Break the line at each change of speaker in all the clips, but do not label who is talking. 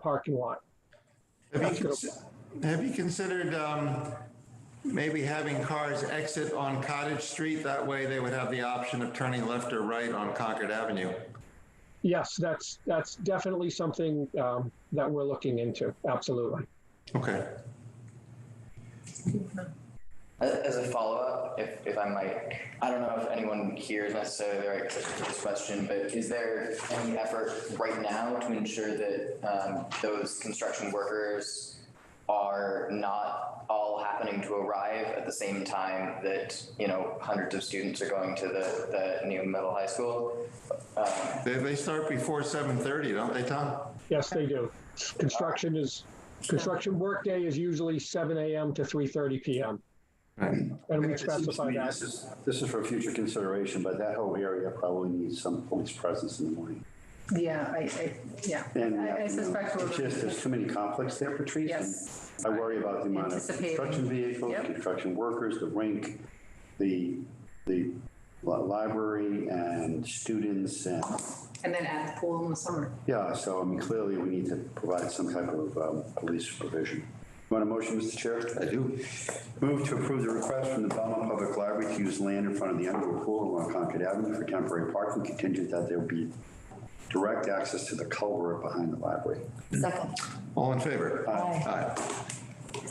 parking lot.
Have you, cons- have you considered um, maybe having cars exit on Cottage Street? That way they would have the option of turning left or right on Concord Avenue.
Yes, that's, that's definitely something um, that we're looking into, absolutely.
Okay.
As, as a follow-up, if, if I might, I don't know if anyone here is necessarily the right person for this question, but is there any effort right now to ensure that um, those construction workers are not all happening to arrive at the same time that, you know, hundreds of students are going to the, the new middle high school? Um,
They, they start before 7:30, don't they, Tom?
Yes, they do. Construction is, construction workday is usually seven AM to 3:30 PM. And we
It seems to
specify
me
that.
This is, this is for future consideration, but that whole area probably needs some police presence in the morning.
Yeah, I, I, yeah.
and in the
I I suspect
afternoon.
we'll.
It's just, there's too many conflicts there, Patrice. and
Yes.
I worry about the amount of
Anticipating.
construction vehicles,
Yep.
construction workers, the rink, the, the li- library and students and,
And then at the pool in the summer.
yeah, so I mean, clearly we need to provide some type of um, police supervision. Want a motion, Mr. Chair?
I do.
Move to approve the request from the Belmont Public Library to use land in front of the Underwood Pool along Concord Avenue for temporary parking contingent that there be direct access to the culvert behind the library.
Second.
All in favor?
Aye.
Aye.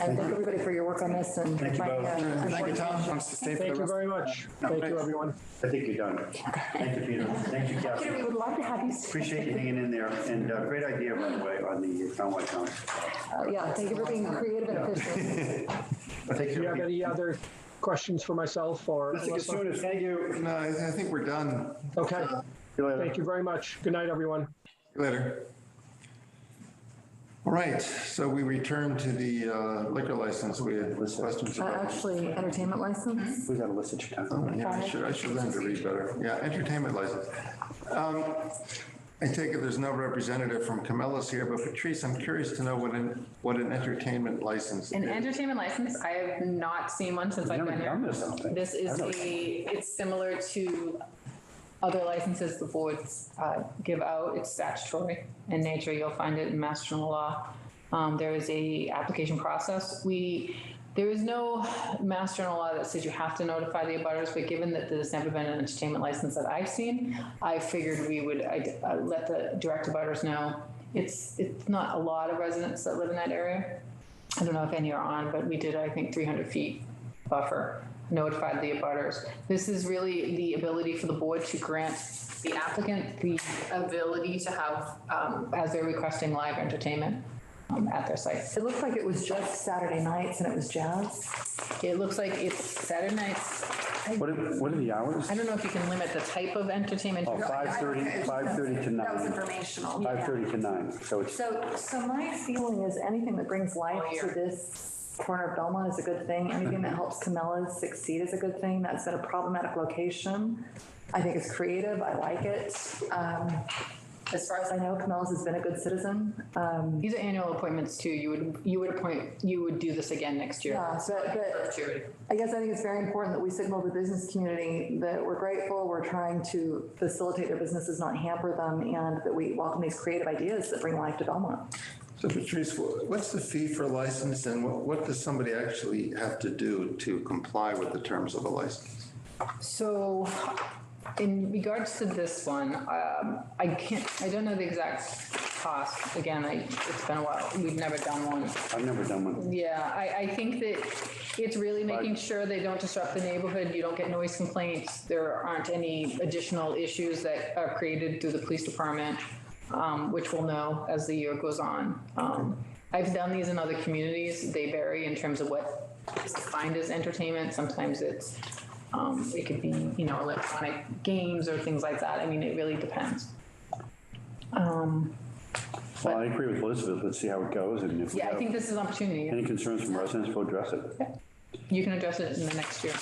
And thank everybody for your work on this and. uh,
Thank you both.
Thank you, Tom.
Thank you very much. Thank you,
thanks.
everyone.
I think you're done. Thank you, Peter. Thank you,
Peter, we
Kathy.
would love to have you.
Appreciate you hanging in there, and uh, great idea, by the way, on the Conway County.
Uh, Yeah, thank you for being creative and efficient.
Take
Do you
care.
have
Peter.
any other questions for myself or?
Mr. Katsounis, thank you.
No, I I think we're done.
Okay,
See you later.
thank you very much. Good night, everyone.
Later. All right, so we return to the uh, liquor license. We had questions
Uh,
about.
Actually, entertainment license?
We got a list at your
Oh,
time.
Yeah, I should, I should learn to read better. Yeah, entertainment license. Um, I take it there's no representative from Camellus here, but Patrice, I'm curious to know what an, what an entertainment license
An
is.
entertainment license, I have not seen one since I've
Never
been
done
here.
this, I don't think.
This is
I
a,
don't-
it's similar to other licenses the boards uh, give out. It's statutory in nature. You'll find it in Mass General Law. Um, There is a application process. We, there is no Mass General Law that says you have to notify the abutters, but given that there's never been an entertainment license that I've seen, I figured we would I'd, uh, let the direct abutters know. It's, it's not a lot of residents that live in that area. I don't know if any are on, but we did, I think, 300 feet buffer, notified the abutters. This is really the ability for the board to grant the applicant the ability to have, um, as they're requesting live entertainment um, at their site.
It looked like it was just Saturday nights and it was jazz.
It looks like it's Saturday nights. I
What are, what are the hours?
I don't know if you can limit the type of entertainment.
Oh, 5:30, 5:30 to 9.
That was informational. yeah.
5:30 to 9, so it's
So, so my feeling is anything that brings life
All
to
year.
this corner of Belmont is a good thing. Anything that helps Camellas succeed is a good thing. That's at a problematic location. I think it's creative. I like it. Um, As far as I know, Camellas has been a good citizen. Um,
These are annual appointments too. You would, you would appoint, you would do this again next year.
Yeah, so- but-
Perpetuity.
I guess I think it's very important that we signal the business community that we're grateful, we're trying to facilitate their businesses, not hamper them, and that we welcome these creative ideas that bring life to Belmont.
So Patrice, wh- what's the fee for a license and what, what does somebody actually have to do to comply with the terms of a license?
So in regards to this one, um, I can't, I don't know the exact cost. Again, I, it's been a while. We've never done one.
I've never done one.
Yeah, I, I think that it's really making sure they don't disrupt the neighborhood, you don't get noise complaints, there aren't any additional issues that are created through the police department, um, which we'll know as the year goes on. Um, I've done these in other communities, they vary in terms of what is defined as entertainment, sometimes it's, um, it could be, you know, electronic games or things like that, I mean, it really depends. Um,
Well, I agree with Elizabeth, let's see how it goes, and if we
yeah, I
have
think this is an opportunity,
any concerns from residents, we'll address it.
you can address it in the next year.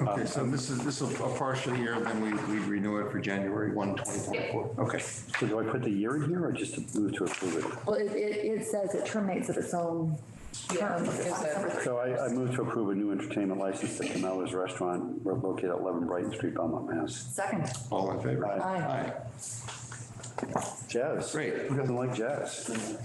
Okay, so this is, this is a partial year, then we, we renew it for January 1, 2024. Okay.
So do I put the year in here, or just to move to approve it?
Well, it, it, it says it terminates of its own term.
It's a-
So I, I move to approve a new entertainment license to Camel's Restaurant located at 11 Brighton Street, Belmont, Mass.
Second.
All in favor?
Aye.
Aye.
Jazz.
Great.
Who doesn't like jazz?